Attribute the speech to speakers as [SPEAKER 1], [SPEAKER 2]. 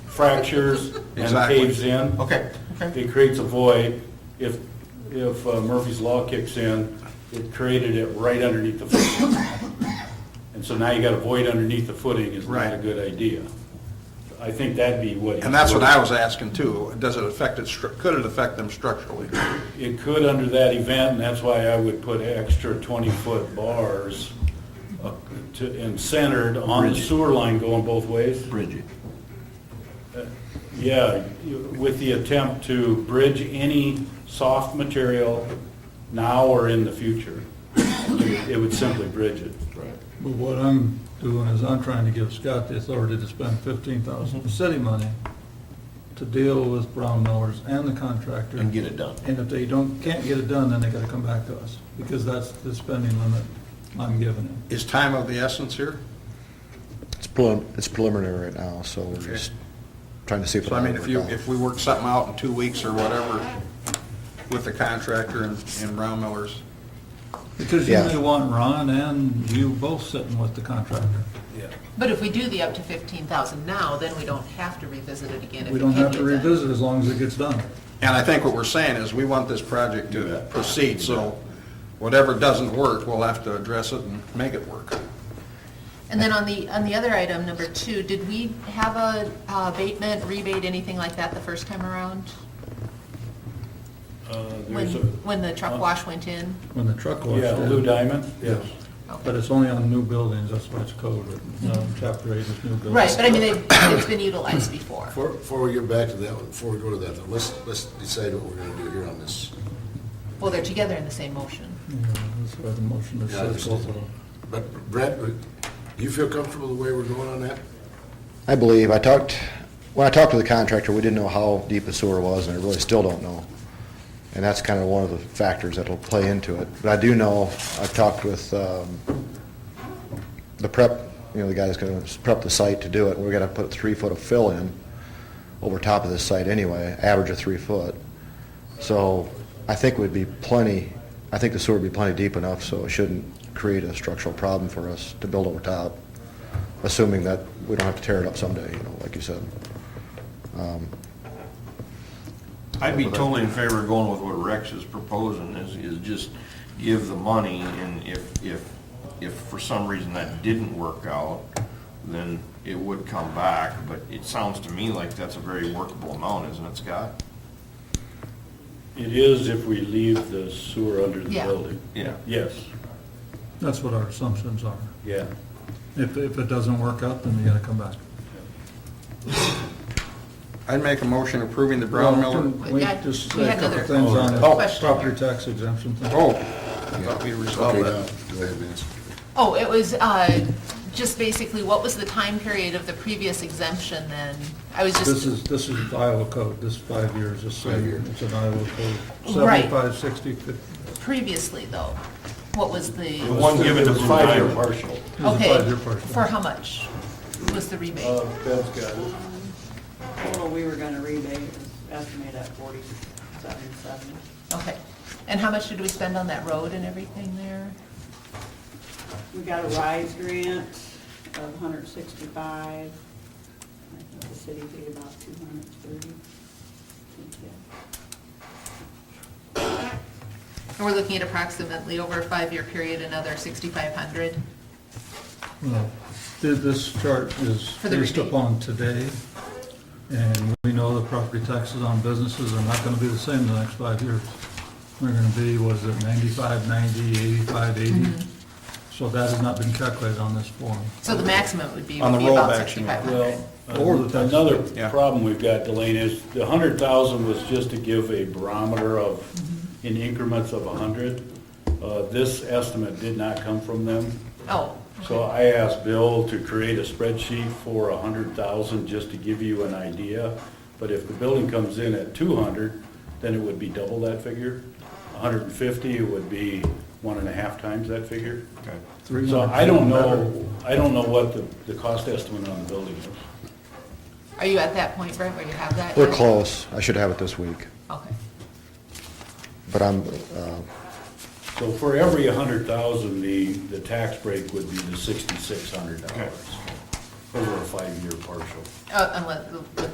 [SPEAKER 1] fractures and
[SPEAKER 2] Exactly.
[SPEAKER 1] caves in.
[SPEAKER 2] Okay, okay.
[SPEAKER 1] It creates a void. If, if uh, Murphy's Law kicks in, it created it right underneath the footing. And so now you got a void underneath the footing is not a
[SPEAKER 2] Right.
[SPEAKER 1] good idea. I think that'd be what.
[SPEAKER 2] And that's what I was asking too. Does it affect it, stru- could it affect them structurally?
[SPEAKER 1] It could under that event, and that's why I would put extra 20-foot bars uh, to, and centered on the sewer line going both ways. Uh,
[SPEAKER 3] Bridget.
[SPEAKER 1] Yeah, you- with the attempt to bridge any soft material now or in the future. It would simply bridge it.
[SPEAKER 4] But what I'm doing is I'm trying to give Scott the authority to spend fifteen
[SPEAKER 3] Mm-hmm.
[SPEAKER 4] thousand city money to deal with Brown Millers and the contractor.
[SPEAKER 3] And get it done.
[SPEAKER 4] And if they don't, can't get it done, then they gotta come back to us, because that's the spending limit I'm giving him.
[SPEAKER 2] Is time of the essence here?
[SPEAKER 5] It's prelim, it's preliminary right now, so we're
[SPEAKER 2] Okay.
[SPEAKER 5] just trying to see.
[SPEAKER 2] So I mean, if you, if we work something out in two weeks or whatever with the contractor and, and Brown Millers,
[SPEAKER 4] Because you
[SPEAKER 5] Yeah.
[SPEAKER 4] may want Ron and you both sitting with the contractor.
[SPEAKER 6] But if we do the up to fifteen thousand now, then we don't have to revisit it again. if
[SPEAKER 4] We don't
[SPEAKER 6] can't
[SPEAKER 4] have to
[SPEAKER 6] get done.
[SPEAKER 4] revisit as long as it gets done.
[SPEAKER 2] And I think what we're saying is, we want this project to proceed, so whatever doesn't work, we'll have to address it and make it work.
[SPEAKER 6] And then on the, on the other item, number two, did we have a uh, abatement, rebate, anything like that the first time around?
[SPEAKER 1] Uh,
[SPEAKER 6] When,
[SPEAKER 1] There's a
[SPEAKER 6] when the truck wash went in?
[SPEAKER 4] When the truck wash
[SPEAKER 1] Yeah,
[SPEAKER 4] did.
[SPEAKER 1] Lou Diamond?
[SPEAKER 4] Yes. But it's only on new buildings, that's why it's code, no, chapter eight is new buildings.
[SPEAKER 6] Mm-hmm. Right, but I mean, they- it's been utilized before.
[SPEAKER 7] Before, before we get back to that one, before we go to that, though, let's, let's decide what we're gonna do here on this.
[SPEAKER 6] Well, they're together in the same motion.
[SPEAKER 4] Yeah, that's why the motion is
[SPEAKER 7] Yeah, I
[SPEAKER 4] set both of them.
[SPEAKER 7] But Brett, do you feel comfortable the way we're going on that?
[SPEAKER 5] I believe, I talked, when I talked to the contractor, we didn't know how deep the sewer was, and I really still don't know. And that's kind of one of the factors that'll play into it. But I do know, I've talked with um, the prep, you know, the guy that's going to prep the site to do it. We're going to put three foot of fill in over top of this site anyway, average of three foot. So I think we'd be plenty, I think the sewer would be plenty deep enough, so it shouldn't create a structural problem for us to build over top, assuming that we don't have to tear it up someday, you know, like you said. Um,
[SPEAKER 3] I'd be totally in favor of going with what Rex is proposing, is, is just give the money, and if, if, if for some reason that didn't work out, then it would come back, but it sounds to me like that's a very workable amount, isn't it, Scott?
[SPEAKER 1] It is if we leave the sewer under the
[SPEAKER 6] Yeah.
[SPEAKER 1] building.
[SPEAKER 3] Yeah.
[SPEAKER 1] Yes,
[SPEAKER 4] That's what our assumptions are.
[SPEAKER 1] yeah.
[SPEAKER 4] If, if it doesn't work out, then you gotta come back.
[SPEAKER 2] I'd make a motion approving the Brown Miller.
[SPEAKER 4] Can We
[SPEAKER 6] Yeah,
[SPEAKER 4] just
[SPEAKER 6] we
[SPEAKER 4] say a
[SPEAKER 6] had
[SPEAKER 4] couple
[SPEAKER 6] another
[SPEAKER 4] things on
[SPEAKER 2] Oh.
[SPEAKER 4] the
[SPEAKER 6] question.
[SPEAKER 4] property tax exemption thing.
[SPEAKER 2] Oh, I thought we resolved
[SPEAKER 7] Okay,
[SPEAKER 2] that.
[SPEAKER 7] now, Go ahead, Vince.
[SPEAKER 6] Oh, it was uh, just basically, what was the time period of the previous exemption then? I was
[SPEAKER 4] This
[SPEAKER 6] just,
[SPEAKER 4] is, this is Iowa code, this is five years, this
[SPEAKER 7] Five years.
[SPEAKER 4] is, it's an Iowa code.
[SPEAKER 6] Right.
[SPEAKER 4] Seventy-five, sixty, fifty.
[SPEAKER 6] previously though, what was
[SPEAKER 1] The
[SPEAKER 6] the,
[SPEAKER 1] one given to
[SPEAKER 4] Blue
[SPEAKER 1] Five-year
[SPEAKER 4] Diamond.
[SPEAKER 1] partial.
[SPEAKER 4] is a
[SPEAKER 6] okay,
[SPEAKER 4] five-year portion.
[SPEAKER 6] for how much was the rebate?
[SPEAKER 1] Bev's got it.
[SPEAKER 8] Total we were gonna rebate is estimated at forty-seven, seventy.
[SPEAKER 6] Okay, and how much did we spend on that road and everything there?
[SPEAKER 8] We got a RISE grant of hundred sixty-five. I think the city paid about two hundred thirty.
[SPEAKER 6] And we're looking at approximately over a five-year period, another 6,500.
[SPEAKER 4] Well, th- This chart is
[SPEAKER 6] For the
[SPEAKER 4] based
[SPEAKER 6] rebate.
[SPEAKER 4] upon today, and we know the property taxes on businesses are not gonna be the same the next five years. They're gonna be, was it 95, 90, 85, 80?
[SPEAKER 6] Mm-hmm.
[SPEAKER 4] So that has not been calculated on this form.
[SPEAKER 6] So the maximum would be,
[SPEAKER 2] On
[SPEAKER 6] would
[SPEAKER 2] the
[SPEAKER 6] be about
[SPEAKER 2] rollback, you mean.
[SPEAKER 6] 6,500.
[SPEAKER 1] Well,
[SPEAKER 4] Or the tax-
[SPEAKER 1] uh, another
[SPEAKER 2] yeah.
[SPEAKER 1] problem we've got, Delane, is the hundred thousand was just to give a barometer of, in increments of a hundred. Uh, This estimate did not come from them.
[SPEAKER 6] Oh,
[SPEAKER 1] So I asked Bill to create a spreadsheet for a hundred thousand, just to give you an idea. But if the building comes in at two hundred, then it would be double that figure. A hundred and fifty, it would be one and a half times that figure.
[SPEAKER 3] Okay.
[SPEAKER 1] So I don't know, I don't know what the, the cost estimate on the building is.
[SPEAKER 6] are you at that point, Brent, where you have that?
[SPEAKER 5] We're
[SPEAKER 6] yet?
[SPEAKER 5] close, I should have it this week,
[SPEAKER 6] Okay.
[SPEAKER 5] but I'm, uh,
[SPEAKER 1] So for every a hundred thousand, the, the tax break would be the sixty-six hundred dollars over a five-year partial.
[SPEAKER 6] Uh, Unless, with